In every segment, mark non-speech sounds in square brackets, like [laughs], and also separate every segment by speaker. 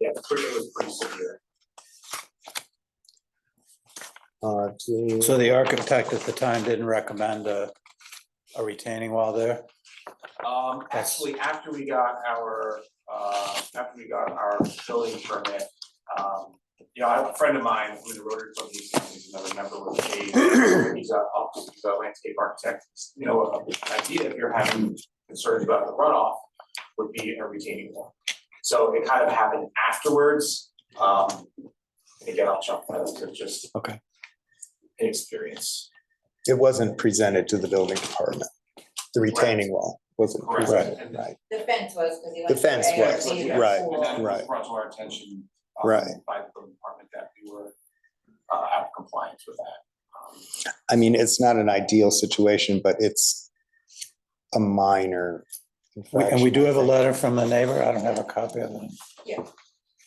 Speaker 1: Yeah, the pushing was pretty severe.
Speaker 2: Uh,
Speaker 3: So
Speaker 2: to,
Speaker 3: the architect at the time didn't recommend a, a retaining wall there?
Speaker 1: Um, actually, after we got our, uh, after we got our building permit, um, you know, I have a friend of mine who's a Rotary Club museum, he's another member with
Speaker 2: [clears throat]
Speaker 1: me. He's a, he's a landscape architect, you know, an idea if you're having concerns about the runoff would be a retaining wall. So it kind of happened afterwards, um, again, I'll jump, that was just.
Speaker 3: Okay.
Speaker 1: An experience.
Speaker 2: it wasn't presented to the building department. The retaining wall wasn't
Speaker 1: Correct.
Speaker 2: presented, right?
Speaker 4: The fence was, because he
Speaker 2: The
Speaker 4: went. to
Speaker 2: fence
Speaker 4: ARB
Speaker 2: was,
Speaker 4: before.
Speaker 2: right,
Speaker 1: And that was
Speaker 2: right.
Speaker 1: brought to our attention. um,
Speaker 2: Right.
Speaker 1: By the building department that we were uh, out of compliance with that. Um,
Speaker 2: I mean, it's not an ideal situation, but it's a minor.
Speaker 3: We- And we do have a
Speaker 2: infraction,
Speaker 3: letter from the neighbor, I don't have a copy of it.
Speaker 4: Yeah.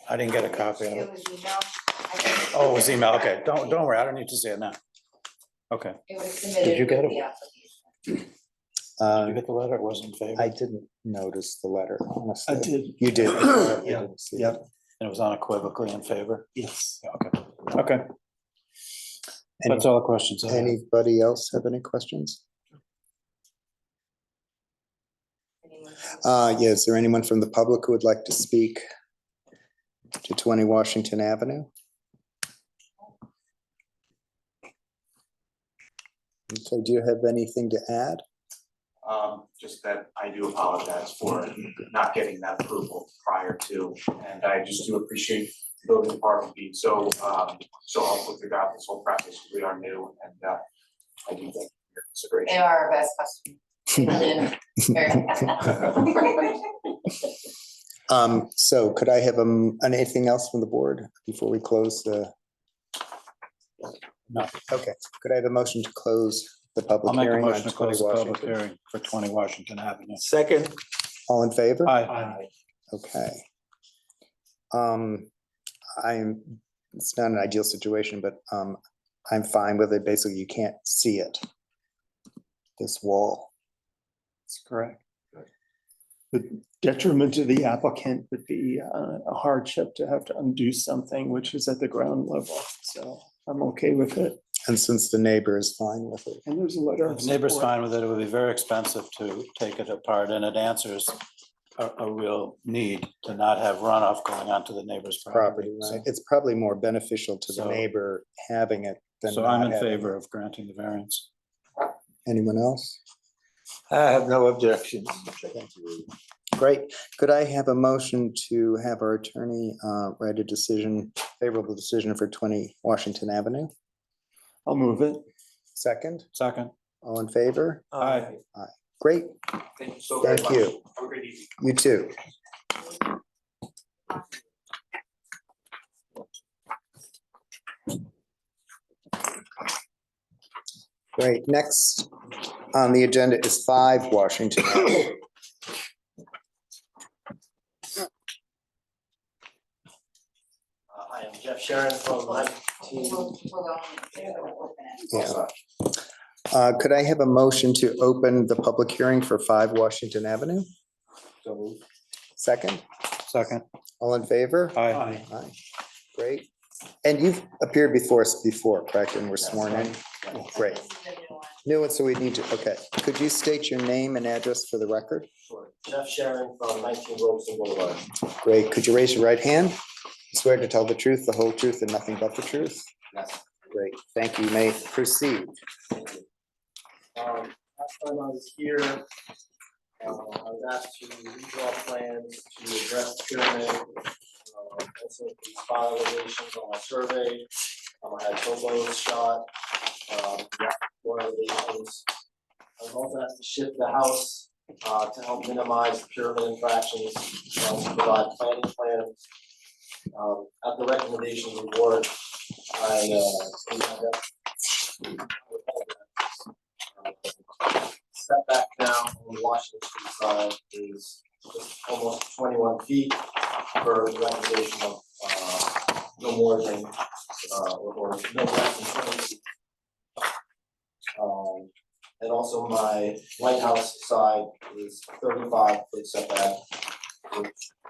Speaker 3: I didn't get a copy of
Speaker 4: It
Speaker 3: it.
Speaker 4: was emailed. I think-
Speaker 3: Oh, it was email, okay, don't, don't worry, I don't need to see it now. Okay,
Speaker 4: It was submitted.
Speaker 3: Did you get
Speaker 4: with
Speaker 3: it?
Speaker 4: the application.
Speaker 2: I
Speaker 3: Did you
Speaker 2: think.
Speaker 3: get the letter, it was in
Speaker 2: Uh, I
Speaker 3: favor.
Speaker 2: didn't notice the letter, honestly.
Speaker 5: did,
Speaker 2: You did. I
Speaker 5: Yeah,
Speaker 2: didn't see it.
Speaker 5: yeah.
Speaker 3: It was unequivocally in favor,
Speaker 5: yes.
Speaker 3: okay, okay,
Speaker 2: Any-
Speaker 3: that's all the questions. I have.
Speaker 2: Anybody else have any questions?
Speaker 4: Anyone
Speaker 2: Uh, yeah, is there anyone from the public who would like to speak to twenty Washington Avenue? Okay, do you have anything to add?
Speaker 1: Um, just that I do apologize for not getting that approval prior to, and I just do appreciate the building department being so, um, so helpful throughout this whole process. We are new and, uh, I do thank you for your
Speaker 4: They
Speaker 1: consideration.
Speaker 4: are our best customer.
Speaker 2: [laughs]
Speaker 4: They're-
Speaker 2: Um, so could I have um, anything else from the board before we close the?
Speaker 3: No.
Speaker 2: Okay, could I have a motion to close the
Speaker 3: I'll
Speaker 2: public
Speaker 3: make a
Speaker 2: hearing on
Speaker 3: motion to
Speaker 2: twenty
Speaker 3: close the public
Speaker 2: Washington?
Speaker 3: hearing for twenty Washington Avenue.
Speaker 5: Second,
Speaker 2: All in favor?
Speaker 3: Aye.
Speaker 2: Okay. Um, I'm, it's not an ideal situation, but um, I'm fine with it. Basically, you can't see it. This wall.
Speaker 5: that's correct. The detriment to the applicant would be uh, a hardship to have to undo something which is at the ground level, so I'm okay with it.
Speaker 2: And since the neighbor is fine with it,
Speaker 5: And there's a letter. of
Speaker 3: If neighbor's
Speaker 5: support.
Speaker 3: fine with it, it would be very expensive to take it apart, and it answers a, a real need to not have runoff going onto the neighbor's
Speaker 2: property,
Speaker 3: property.
Speaker 2: right? It's probably more beneficial to the
Speaker 3: So-
Speaker 2: neighbor having it
Speaker 3: So-
Speaker 2: than
Speaker 3: So I'm
Speaker 2: not
Speaker 3: in
Speaker 2: having.
Speaker 3: favor of granting the variance.
Speaker 2: Anyone else?
Speaker 5: I have no objections.
Speaker 2: Great. Could I have a motion to have our attorney uh, write a decision, favorable decision for twenty Washington Avenue?
Speaker 5: I'll move it.
Speaker 2: Second,
Speaker 3: Second,
Speaker 2: all in favor?
Speaker 3: Aye.
Speaker 2: Great,
Speaker 1: Thank you so very
Speaker 2: thank
Speaker 1: much.
Speaker 2: you.
Speaker 1: Have a great evening.
Speaker 2: You too. Great, next on the agenda is five Washington. [coughs] Avenue.
Speaker 6: Uh, I am Jeff Sharon from Lime
Speaker 4: We'll-
Speaker 6: Team.
Speaker 4: [laughs] we'll go on. They're gonna open it.
Speaker 2: Yeah. Uh, Could I have a motion to open the public hearing for five Washington Avenue? Second,
Speaker 3: second,
Speaker 2: all in favor?
Speaker 3: aye.
Speaker 2: Aye. Great. And you've appeared before us before, correct, and were sworn in? Great.
Speaker 4: This is a new one.
Speaker 2: No, one, so we need to, okay. Could you state your name and address for the record?
Speaker 6: Sure. Jeff Sharon from nineteen Robinson Boulevard.
Speaker 2: Great. Could you raise your right hand? Swear to tell the truth, the whole truth, and nothing but the truth?
Speaker 6: Yes.
Speaker 2: Great. Thank you. You May proceed.
Speaker 6: Thank you. Um, Last time I was here, uh, I was asked to redraw plans to address the pyramid. uh, Also, the spot elevations on my survey, Um, I had topos shot, um, floor elevations. I was also asked to shift the house uh, to help minimize the pyramid infractions, um, to provide planning plans. Um, At the recommendation of the board, I uh, we had that setback now on Washington Street side is just almost twenty-one feet for renovation of, uh, no more than, uh, or, or no less than twenty feet. Um, and also my lighthouse side is thirty-five foot setback, which